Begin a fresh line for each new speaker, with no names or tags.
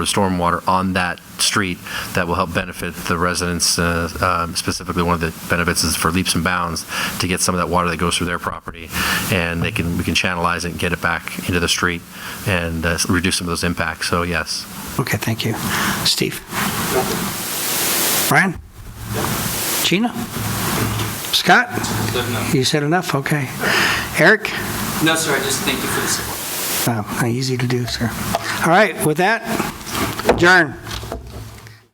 of stormwater on that street that will help benefit the residents, uh, um, specifically one of the benefits is for leaps and bounds to get some of that water that goes through their property, and they can, we can channelize it and get it back into the street and uh, reduce some of those impacts, so yes.
Okay, thank you. Steve? Brian? Gina? Scott? You said enough, okay. Eric?
No, sir, I just thank you for the support.
Wow, not easy to do, sir. All right, with that, adjourn.